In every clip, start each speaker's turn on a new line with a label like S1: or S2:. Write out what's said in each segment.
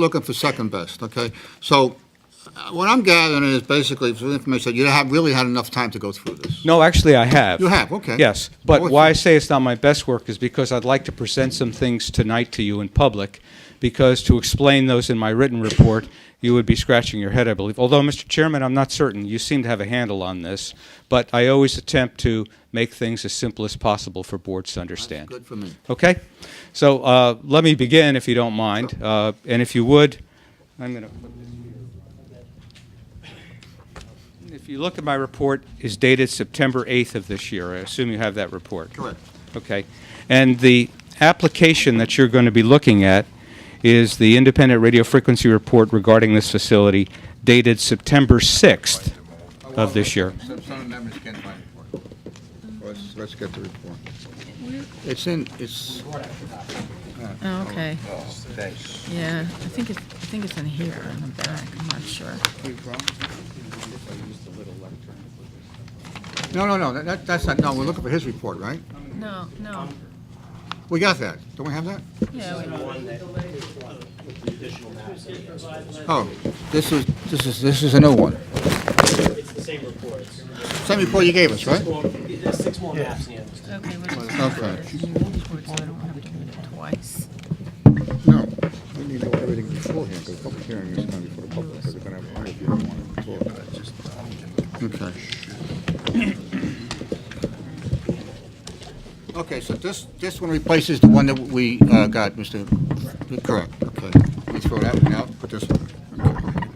S1: looking for second best, okay? So uh, what I'm gathering is basically, for the information, you have really had enough time to go through this.
S2: No, actually, I have.
S1: You have, okay.
S2: Yes, but
S1: Well,
S2: why I say it's not my best work is because I'd like to present some things tonight to you in public, because to explain those in my written report, you would be scratching your head, I believe. Although, Mr. Chairman, I'm not certain. You seem to have a handle on this, but I always attempt to make things as simple as possible for boards to understand.
S1: Good for me.
S2: Okay? So uh, let me begin, if you don't mind. Uh, And if you would, I'm going to put this here. If you look at my report, it's dated September 8th of this year. I assume you have that report.
S1: Correct.
S2: Okay. And the application that you're going to be looking at is the independent radio frequency report regarding this facility dated September 6th of this year.
S3: Some members can't find it. Let's, let's get the report.
S1: It's in, it's,
S4: Oh, okay,
S3: Oh, thanks.
S4: yeah, I think it's, I think it's in here, in the back, I'm not sure.
S1: no, no, no, that, that's not, no, we're looking for his report, right?
S4: No, no,
S1: We got that. Don't we have that?
S4: yeah, wait.
S1: Oh, this is, this is, this is a new one.
S5: It's the same reports.
S1: Same report you gave us, right?
S5: Well, there's six more maps in the end.
S4: okay, what is
S1: Okay.
S4: It's new reports, so I don't have to do it twice.
S1: No. We need to know everything beforehand, because public hearing is going to be for the public, because they're going to have a if you don't want it Okay. um, Okay, so this, this one replaces the one that we uh, got, Mr. Correct, okay. We throw that one out, put this one. Okay.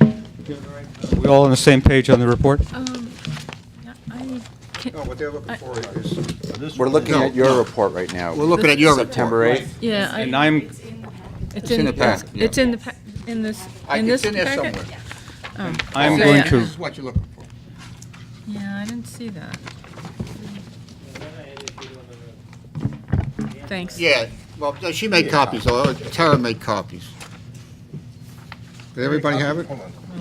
S2: We all on the same page on the report?
S4: Um, yeah, I,
S1: No,
S4: can,
S1: what they're looking for is,
S3: We're looking
S1: No,
S3: at your report right now.
S1: we're looking at your report.
S3: September 8th.
S4: yeah,
S2: And
S4: I,
S2: I'm,
S4: it's
S1: in
S4: in,
S1: the pack, yeah.
S4: it's in the, pa- in this,
S1: I-
S4: in this
S1: It's in there
S4: packet?
S1: somewhere.
S2: I'm
S4: So,
S2: going
S4: yeah.
S2: to
S1: This is what you're looking for.
S4: Yeah, I didn't see that, thanks.
S1: Yeah, well, she made copies, or Tara made copies. Did everybody have it?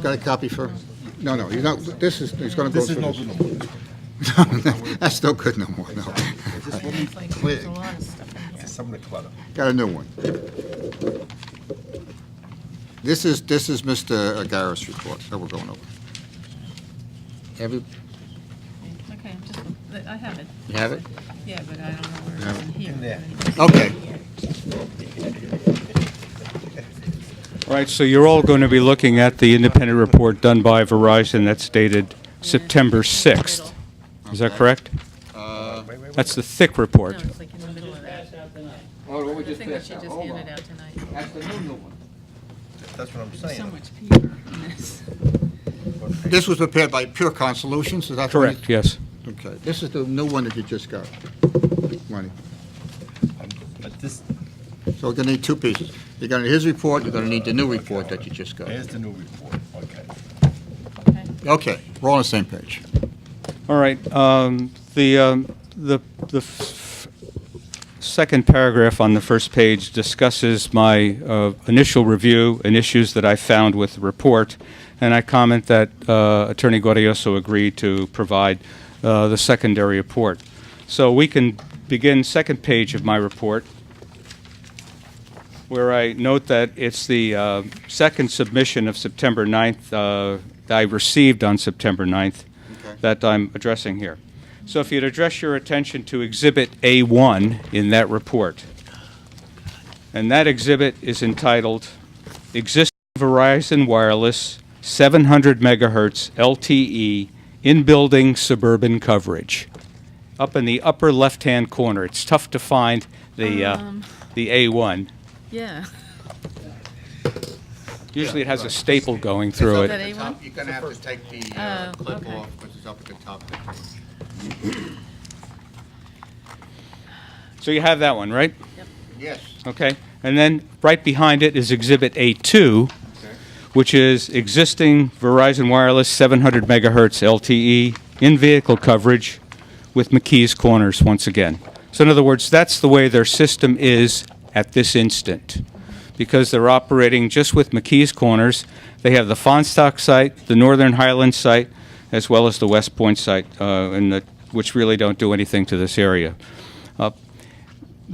S1: Got a copy for, no, no, you know, this is, it's gonna go through. This is no good no more. That's no good no more, no.
S4: It's like, there's a lot of stuff in here.
S3: Some of the clutter.
S1: Got a new one. This is, this is Mr. Garris' report that we're going over. Every,
S4: Okay, I'm just, I have it,
S1: you have it?
S4: yeah, but I don't know where it's in here.
S1: Okay.
S2: All right, so you're all going to be looking at the independent report done by Verizon that's dated September 6th. Is that
S1: Okay.
S2: correct? That's the thick
S4: No,
S2: report.
S4: it's like in the middle of that.
S1: Oh, what we
S4: I think that she just handed out tonight.
S1: That's the new one.
S3: That's what I'm
S4: There's so much paper in this.
S1: This was prepared by Purecon Solutions, is that? what you-
S2: Correct, yes.
S1: Okay, this is the new one that you just got, Money.
S6: But this,
S1: So we're gonna need two pieces. You're gonna need his report, you're gonna need the new report that you just got.
S6: there's the new report, okay.
S1: Okay, we're all on the same page.
S2: All right, um, the, um, the, the f- second paragraph on the first page discusses my uh, initial review and issues that I found with the report, and I comment that uh, Attorney Guarioso agreed to provide uh, the secondary report. So we can begin second page of my report, where I note that it's the uh, second submission of September 9th, uh, that I received on September 9th,
S1: Okay.
S2: that I'm addressing here. So if you'd address your attention to Exhibit A1 in that report. And that exhibit is entitled Existing Verizon Wireless 700 Megahertz LTE In-Building Suburban Coverage. Up in the upper left-hand corner. It's tough to find the, uh, the A1.
S4: Yeah.
S2: Usually it has a staple going through
S4: Is
S2: it.
S4: that A1?
S1: You're gonna have to take the
S4: uh, Oh, clip okay. off,
S1: which is up at the top.
S2: So you have that one, right?
S1: Yes.
S2: Okay, and then right behind it is Exhibit A2, which is existing Verizon Wireless 700 megahertz LTE in-vehicle coverage with McKee's Corners once again. So in other words, that's the way their system is at this instant, because they're operating just with McKee's Corners. They have the Fonstock site, the Northern Highlands site, as well as the West Point site, uh, and the- which really don't do anything to this area. Uh,